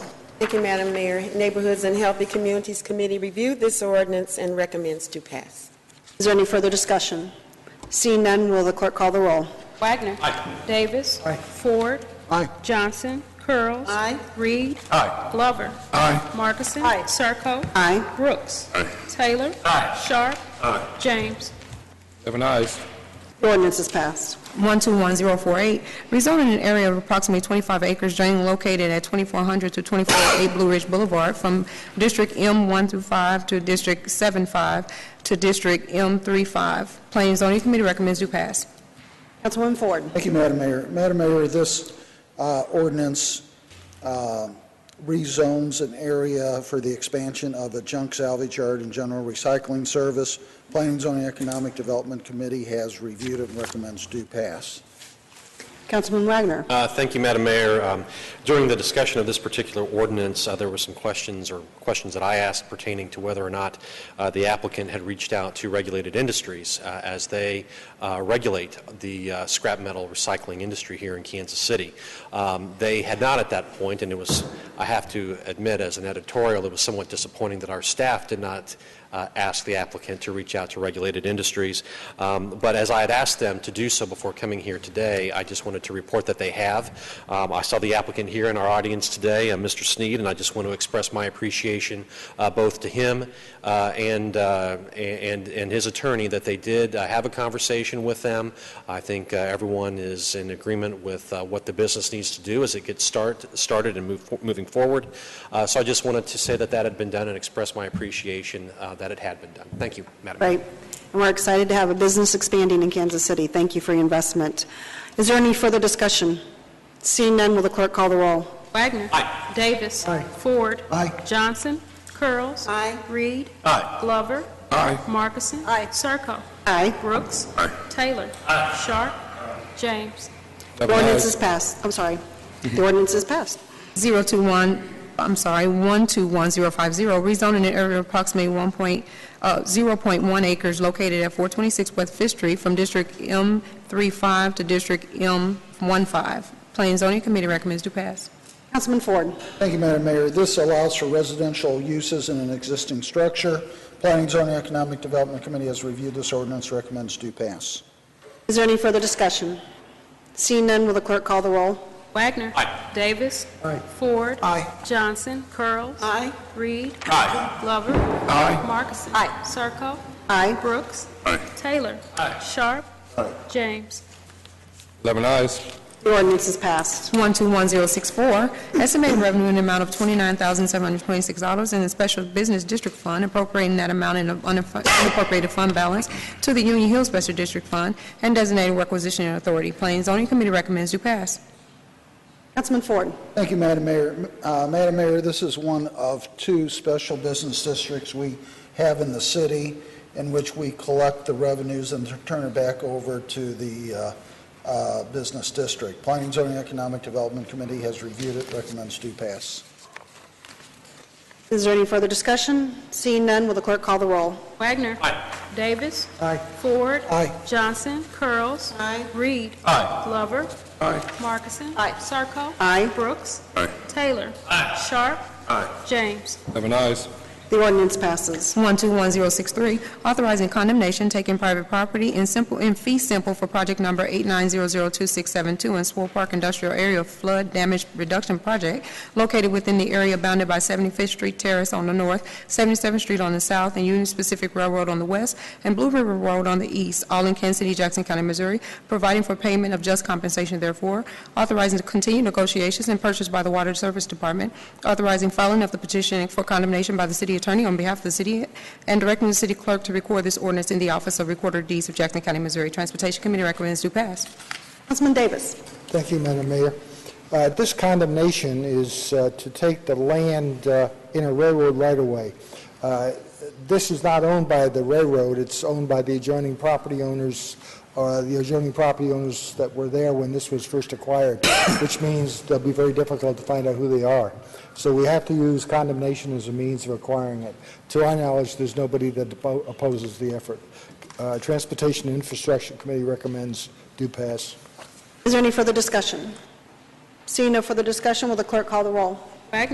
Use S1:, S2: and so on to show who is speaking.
S1: Thank you, Madam Mayor. Neighborhoods and Healthy Communities Committee reviewed this ordinance and recommends to pass.
S2: Is there any further discussion? Seeing none, will the clerk call the roll?
S3: Wagner. Davis. Ford.
S4: Aye.
S3: Johnson. Curls.
S1: Aye.
S3: Reed.
S4: Aye.
S3: Glover.
S4: Aye.
S3: Marcusson.
S1: Aye.
S3: Serko.
S2: Aye.
S3: Brooks. Taylor. Sharp. James.
S4: Seven ayes.
S2: The ordinance is passed.
S5: 121048, rezoning an area of approximately 25 acres drain located at 2400 to 248 Blue Ridge Boulevard from District M1 through 5 to District 75 to District M35. Planning and Zoning Committee recommends you pass.
S2: Councilwoman Ford.
S4: Thank you, Madam Mayor. Madam Mayor, this uh, ordinance uh, rezones an area for the expansion of a junk salvage yard and general recycling service. Planning and Zoning Economic Development Committee has reviewed it and recommends do pass.
S2: Councilman Wagner.
S6: Uh, Thank you, Madam Mayor. Um, During the discussion of this particular ordinance, uh, there were some questions, or questions that I asked pertaining to whether or not uh, the applicant had reached out to regulated industries uh, as they uh, regulate the uh, scrap metal recycling industry here in Kansas City. Um, They had not at that point, and it was, I have to admit, as an editorial, it was somewhat disappointing that our staff did not uh, ask the applicant to reach out to regulated industries. Um, But as I had asked them to do so before coming here today, I just wanted to report that they have. Um, I saw the applicant here in our audience today, uh, Mr. Sneed, and I just want to express my appreciation uh, both to him uh, and, uh, and, and his attorney that they did uh, have a conversation with them. I think uh, everyone is in agreement with uh, what the business needs to do as it gets start, started and move, moving forward. Uh, So I just wanted to say that that had been done and express my appreciation uh, that it had been done. Thank you, Madam Mayor.
S2: Great. And we're excited to have a business expanding in Kansas City. Thank you for your investment. Is there any further discussion? Seeing none, will the clerk call the roll?
S3: Wagner. Davis. Ford.
S4: Aye.
S3: Johnson. Curls.
S1: Aye.
S3: Reed.
S4: Aye.
S3: Glover.
S4: Aye.
S3: Marcusson.
S1: Aye.
S3: Serko.
S2: Aye.
S3: Brooks. Taylor. Sharp. James.
S2: The ordinance is passed. I'm sorry. The ordinance is passed.
S5: 021, I'm sorry, 121050, rezoning an area of approximately 1 point, uh, 0.1 acres located at 426 West Fifth Street from District M35 to District M15. Planning and Zoning Committee recommends to pass.
S2: Councilman Ford.
S4: Thank you, Madam Mayor. This allows for residential uses in an existing structure. Planning and Zoning Economic Development Committee has reviewed this ordinance, recommends do pass.
S2: Is there any further discussion? Seeing none, will the clerk call the roll?
S3: Wagner. Davis. Ford.
S4: Aye.
S3: Johnson. Curls.
S1: Aye.
S3: Reed. Glover. Marcusson. Serko.
S2: Aye.
S3: Brooks. Taylor. Sharp. James.
S7: Eleven eyes.
S2: The ordinance is passed.
S5: 121064, estimated revenue in the amount of $29,726 in the Special Business District Fund, appropriating that amount in the unaf- unappropriated fund balance to the Union Hill Special District Fund, and designating requisition authority. Planning and Zoning Committee recommends you pass.
S2: Councilman Ford.
S4: Thank you, Madam Mayor. Uh, Madam Mayor, this is one of two special business districts we have in the city in which we collect the revenues and turn it back over to the uh, uh, business district. Planning and Zoning Economic Development Committee has reviewed it, recommends do pass.
S2: Is there any further discussion? Seeing none, will the clerk call the roll?
S3: Wagner. Davis.
S4: Aye.
S3: Ford.
S4: Aye.
S3: Johnson. Curls.
S1: Aye.
S3: Reed. Glover. Marcusson. Sarko.
S2: Aye.
S3: Brooks. Taylor. Sharp. James.
S7: Eleven eyes.
S2: The ordinance passes.
S5: 121063, authorizing condemnation taking private property in simple, in fee simple for project number 89002672 in Swole Park Industrial Area Flood Damage Reduction Project located within the area bounded by 75th Street Terrace on the north, 77th Street on the south, and Union Pacific Railroad on the west, and Blue River Road on the east, all in Kansas City, Jackson County, Missouri, providing for payment of just compensation therefore, authorizing to continue negotiations and purchase by the Water Service Department, authorizing filing of the petition for condemnation by the city attorney on behalf of the city, and directing the city clerk to record this ordinance in the Office of Recorder of Deeds of Jackson County, Missouri. Transportation Committee recommends to pass.
S2: Councilman Davis.
S8: Thank you, Madam Mayor. Uh, This condemnation is uh, to take the land uh, in a railroad right-of-way. Uh, This is not owned by the railroad, it's owned by the adjoining property owners, or the adjoining property owners that were there when this was first acquired, which means it'll be very difficult to find out who they are. So we have to use condemnation as a means of acquiring it. To our knowledge, there's nobody that oppo- opposes the effort. Uh, Transportation and Infrastructure Committee recommends do pass.
S2: Is there any further discussion? Seeing no further discussion, will the clerk call the roll?